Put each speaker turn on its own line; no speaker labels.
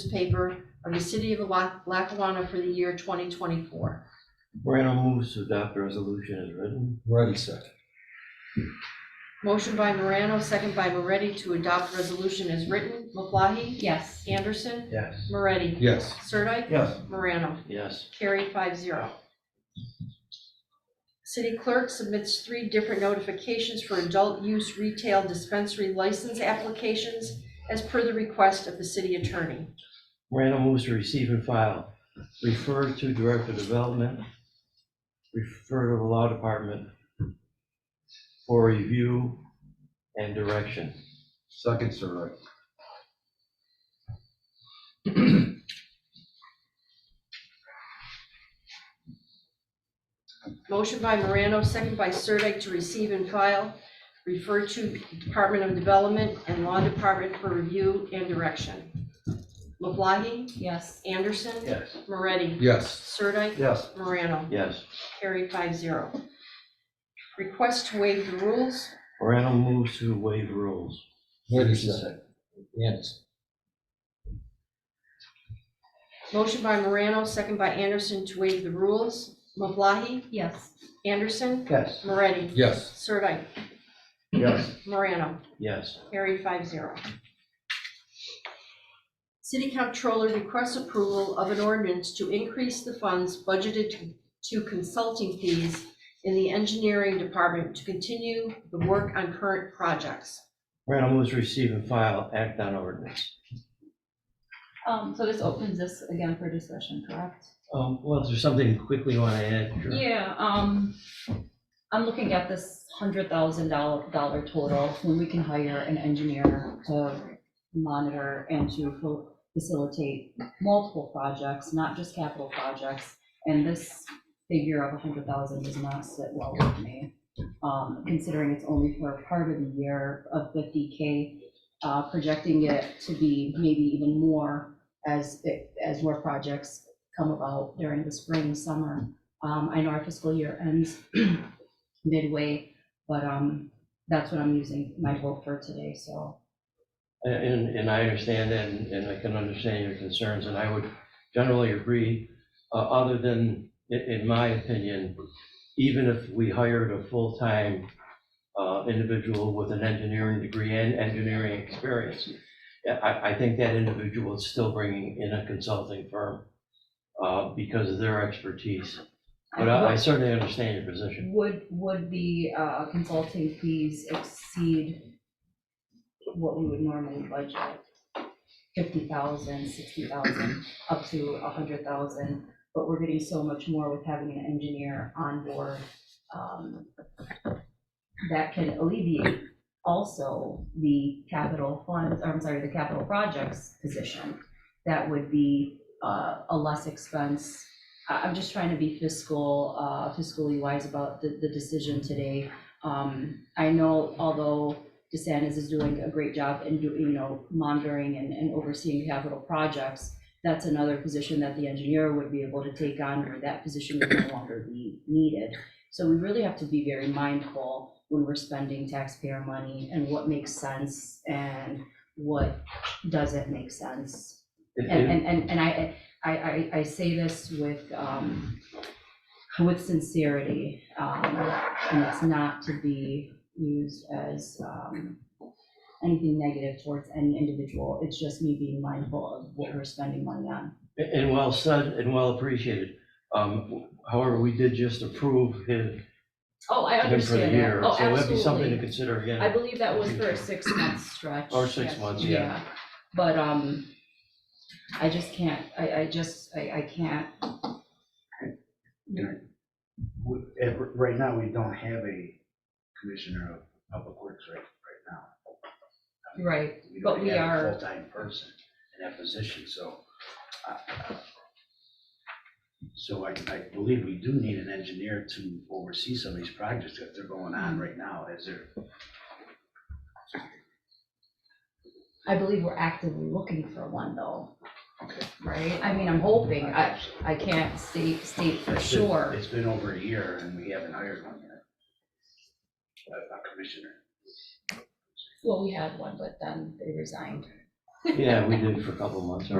newspaper of the city of Lac- Lackawanna for the year 2024.
Morano moves to adopt the resolution as written.
Moretti second.
Motion by Morano, second by Moretti to adopt resolution as written. Maflahe?
Yes.
Anderson?
Yes.
Moretti?
Yes.
Sirdike?
Yes.
Morano?
Yes.
Carried five zero. City clerk submits three different notifications for adult use retail dispensary license applications as per the request of the city attorney.
Morano moves to receive and file, refer to Director of Development, refer to the Law Department for review and direction.
Second, Sirdike.
Motion by Morano, second by Sirdike to receive and file, refer to Department of Development and Law Department for review and direction. LeBlancy,
Yes.
Anderson,
Yes.
Moretti,
Yes.
Sirdike,
Yes.
Morano,
Yes.
carried five zero. Request to waive the rules,
Morano moves to waive rules.
Moretti second. Anderson.
motion by Morano, second by Anderson to waive the rules. LeBlancy,
Yes.
Anderson,
Yes.
Moretti,
Yes.
Sirdike,
Yes.
Morano,
Yes.
Carried five zero. City Comptroller requests approval of an ordinance to increase the funds budgeted to- to consulting fees in the engineering department to continue the work on current projects.
Morano moves to receive and file, act on ordinance.
Um, so this opens this again for discussion, correct?
Um, well, is there something quickly you want to add? Sure.
Yeah, um, I'm looking at this hundred thousand dollar, dollar total, when we can hire an engineer to monitor and to fa- facilitate multiple projects, not just capital projects. And this figure of a hundred thousand does not sit well with me, um, considering it's only for part of the year of fifty K. Uh, projecting it to be maybe even more as, it- as more projects come about during the spring, summer. Um, I know our fiscal year ends midway, but, um, that's what I'm using my vote for today, so.
And, and I understand that, and and I can understand your concerns, and I would generally agree, uh, other than, in, in my opinion, even if we hired a full-time uh, individual with an engineering degree and engineering experience, yeah, I, I think that individual is still bringing in a consulting firm uh, because of their expertise. But I I certainly understand your position.
Would, would the uh, consulting fees exceed what we would normally budget? Fifty thousand, sixty thousand, up to a hundred thousand, but we're getting so much more with having an engineer on board. um, That can alleviate also the capital funds, or I'm sorry, the capital projects position. That would be uh, a less expense I- I'm just trying to be fiscal, uh, fiscally wise about the, the decision today. Um, I know although DeSantis is doing a great job in doing, you know, monitoring and, and overseeing capital projects, that's another position that the engineer would be able to take on, or that position would no longer be needed. So we really have to be very mindful when we're spending taxpayer money and what makes sense and what doesn't make sense.
It-
And,
it-
and, and, and I, I, I, I say this with, um, with sincerity, um, and it's not to be used as, um, anything negative towards any individual, it's just me being mindful of what we're spending money on.
And well said and well appreciated. Um, However, we did just approve his,
Oh, I
him for the
understand that,
year.
oh,
So that'd be something to
absolutely.
consider
I
again.
believe that was for a six-month stretch.
Or six
yes,
months, yeah.
But, um, I just can't, I, I just, I, I can't,
we- at- Right now, we don't have a commissioner of public works right, right now. I mean,
right,
We
but
don't
we
have
are-
a full-time person in that position, so. uh, So I, I believe we do need an engineer to oversee some of these projects that they're going on right now as they're.
I believe we're actively looking for one though,
Okay.
right? I mean, I'm hoping, I, I can't state, state for
It's been-
sure.
It's been over a year and we haven't hired one yet. A- A commissioner.
Well, we had one, but then they resigned.
Yeah, we did for a couple of months.